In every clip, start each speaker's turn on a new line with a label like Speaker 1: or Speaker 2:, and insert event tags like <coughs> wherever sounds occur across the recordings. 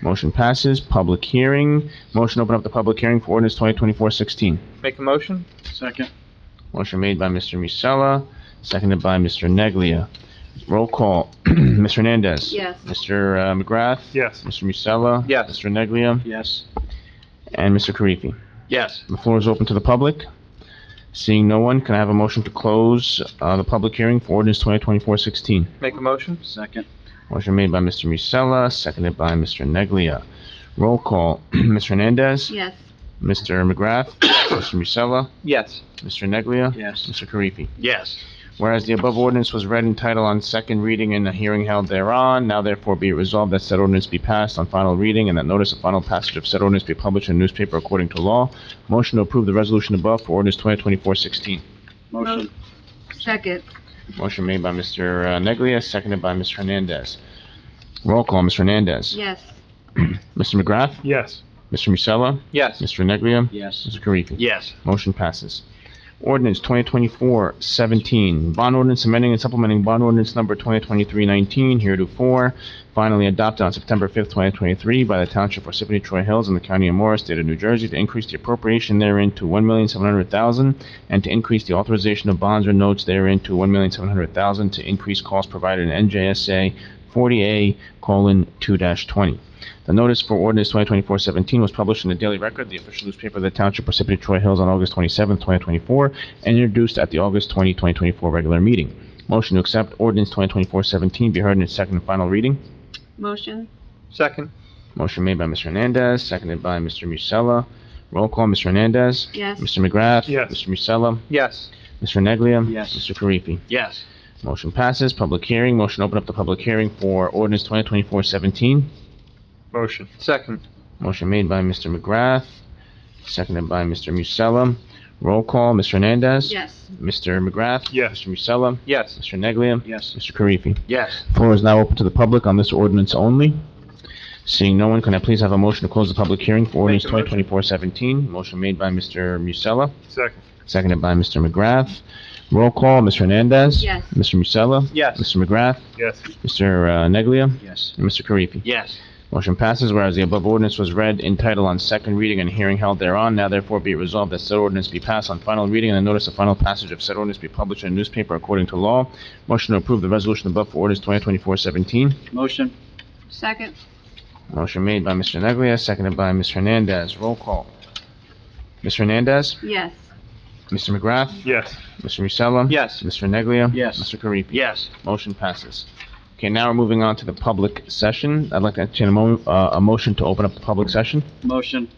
Speaker 1: Motion passes. Public hearing. Motion to open up the public hearing for ordinance 2024-16.
Speaker 2: Make a motion?
Speaker 3: Second.
Speaker 1: Motion made by Mr. Musella, seconded by Mr. Neglia. Roll call. <clears throat> Ms. Hernandez.
Speaker 4: Yes.
Speaker 1: Mr. uh, McGrath.
Speaker 2: Yes.
Speaker 1: Mr. Musella.
Speaker 2: Yes.
Speaker 1: Mr. Neglia.
Speaker 3: Yes.
Speaker 1: And Mr. Karifi.
Speaker 2: Yes.
Speaker 1: The floor is open to the public. Seeing no one, can I have a motion to close uh, the public hearing for ordinance 2024-16?
Speaker 2: Make a motion?
Speaker 3: Second.
Speaker 1: Motion made by Mr. Musella, seconded by Mr. Neglia. Roll call, <clears throat> Ms. Hernandez.
Speaker 4: Yes.
Speaker 1: Mr. McGrath.
Speaker 4: <coughs>
Speaker 1: Mr. Musella.
Speaker 2: Yes.
Speaker 1: Mr. Neglia.
Speaker 3: Yes.
Speaker 1: Mr. Karifi.
Speaker 2: Yes.
Speaker 1: Whereas the above ordinance was read in title on second reading and a hearing held thereon, now therefore be it resolved that said ordinance be passed on final reading and that notice of final passage of said ordinance be published in a newspaper according to law. Motion to approve the resolution above for ordinance 2024-16.
Speaker 3: Motion.
Speaker 4: Second.
Speaker 1: Motion made by Mr. uh, Neglia, seconded by Ms. Hernandez. Roll call, Ms. Hernandez.
Speaker 4: Yes.
Speaker 1: Mr. McGrath.
Speaker 2: Yes.
Speaker 1: Mr. Musella.
Speaker 2: Yes.
Speaker 1: Mr. Neglia.
Speaker 3: Yes.
Speaker 1: Mr. Karifi.
Speaker 2: Yes.
Speaker 1: Motion passes. Ordinance 2024-17, bond ordinance amending and supplementing bond ordinance number 2023-19 heretofore, finally adopted on September 5th, 2023 by the Township Parsippany Troy Hills in the County of Morris, State of New Jersey, to increase the appropriation therein to $1,700,000 and to increase the authorization of bonds or notes therein to $1,700,000 to increase costs provided in NJSA 40A:2-20. The notice for ordinance 2024-17 was published in the Daily Record, the official newspaper of the Township Parsippany Troy Hills on August 27, 2024, and introduced at the August 20, 2024 regular meeting. Motion to accept ordinance 2024-17 be heard in its second and final reading.
Speaker 4: Motion?
Speaker 2: Second?
Speaker 1: Motion made by Mr. Hernandez, seconded by Mr. Musella. Roll call, Mr. Hernandez.
Speaker 4: Yes.
Speaker 1: Mr. McGrath.
Speaker 2: Yes.
Speaker 1: Mr. Musella.
Speaker 2: Yes.
Speaker 1: Mr. Neglia.
Speaker 3: Yes.
Speaker 1: Mr. Karifi.
Speaker 2: Yes.
Speaker 1: Motion passes. Public hearing. Motion to open up the public hearing for ordinance 2024-17.
Speaker 2: Motion. Second?
Speaker 1: Motion made by Mr. McGrath, seconded by Mr. Musella. Roll call, Mr. Hernandez.
Speaker 4: Yes.
Speaker 1: Mr. McGrath.
Speaker 2: Yes.
Speaker 1: Mr. Musella.
Speaker 2: Yes.
Speaker 1: Mr. Neglia.
Speaker 3: Yes.
Speaker 1: Mr. Karifi.
Speaker 2: Yes.
Speaker 1: Floor is now open to the public on this ordinance only. Seeing no one, can I please have a motion to close the public hearing for ordinance
Speaker 2: Make a motion.
Speaker 1: 2024-17? Motion made by Mr. Musella,
Speaker 2: Second?
Speaker 1: seconded by Mr. McGrath. Roll call, Mr. Hernandez.
Speaker 4: Yes.
Speaker 1: Mr. Musella.
Speaker 2: Yes.
Speaker 1: Mr. McGrath.
Speaker 2: Yes.
Speaker 1: Mr. uh, Neglia.
Speaker 3: Yes.
Speaker 1: And Mr. Karifi.
Speaker 2: Yes.
Speaker 1: Motion passes, whereas the above ordinance was read in title on second reading and hearing held thereon, now therefore be it resolved that said ordinance be passed on final reading and a notice of final passage of said ordinance be published in a newspaper according to law. Motion to approve the resolution above for ordinance 2024-17.
Speaker 3: Motion.
Speaker 4: Second?
Speaker 1: Motion made by Mr. Neglia, seconded by Ms. Hernandez. Roll call. Ms. Hernandez?
Speaker 4: Yes.
Speaker 1: Mr. McGrath?
Speaker 2: Yes.
Speaker 1: Mr. Musella?
Speaker 2: Yes.
Speaker 1: Mr. Neglia?
Speaker 3: Yes.
Speaker 1: Mr. Karifi?
Speaker 2: Yes.
Speaker 1: Motion passes. Okay, now we're moving on to the public session. I'd like to entertain a mo, uh, a motion to open up the public session.
Speaker 3: Motion.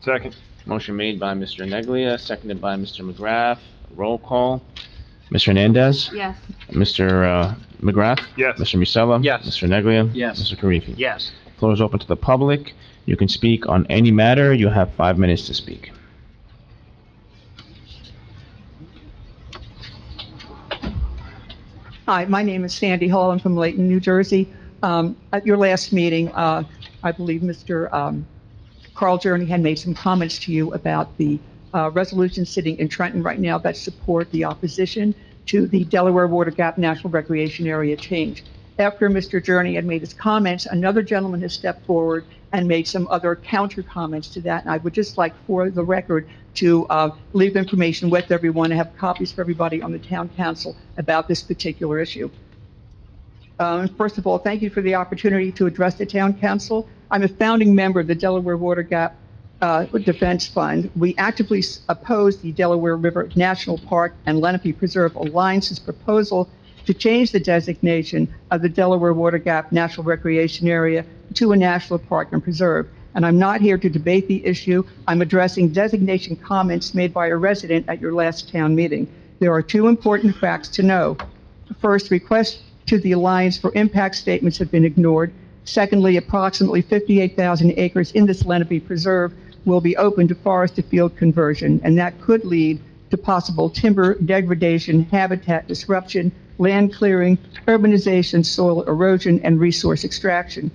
Speaker 2: Second?
Speaker 1: Motion made by Mr. Neglia, seconded by Mr. McGrath. Roll call. Mr. Hernandez?
Speaker 4: Yes.
Speaker 1: Mr. uh, McGrath?
Speaker 2: Yes.
Speaker 1: Mr. Musella?
Speaker 2: Yes.
Speaker 1: Mr. Neglia?
Speaker 3: Yes.
Speaker 1: Mr. Karifi?
Speaker 2: Yes.
Speaker 1: Floor is open to the public. You can speak on any matter. You have five minutes to speak.
Speaker 5: Hi, my name is Sandy Hall. I'm from Layton, New Jersey. Um, At your last meeting, uh, I believe Mr. um, Carl Journey had made some comments to you about the uh, resolution sitting in Trenton right now that support the opposition to the Delaware Water Gap National Recreation Area change. After Mr. Journey had made his comments, another gentleman has stepped forward and made some other counter comments to that. And I would just like, for the record, to uh, leave information with everyone, and have copies for everybody on the town council about this particular issue. Um, First of all, thank you for the opportunity to address the town council. I'm a founding member of the Delaware Water Gap uh, Defense Fund. We actively s- oppose the Delaware River National Park and Lenape Preserve Alliance's proposal to change the designation of the Delaware Water Gap National Recreation Area to a national park and preserve. And I'm not here to debate the issue. I'm addressing designation comments made by a resident at your last town meeting. There are two important facts to know. First, requests to the Alliance for impact statements have been ignored. Secondly, approximately 58,000 acres in this Lenape Preserve will be open to forest-to-field conversion, and that could lead to possible timber degradation, habitat disruption, land clearing, urbanization, soil erosion, and resource extraction.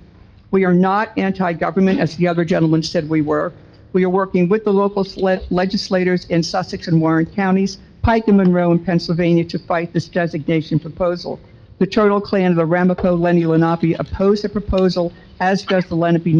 Speaker 5: We are not anti-government, as the other gentleman said we were. We are working with the local sle- legislators in Sussex and Warren counties, Pike and Monroe in Pennsylvania, to fight this designation proposal. The Turtle Clan of the Ramapo Lenni Lenape oppose the proposal, as does the Lenape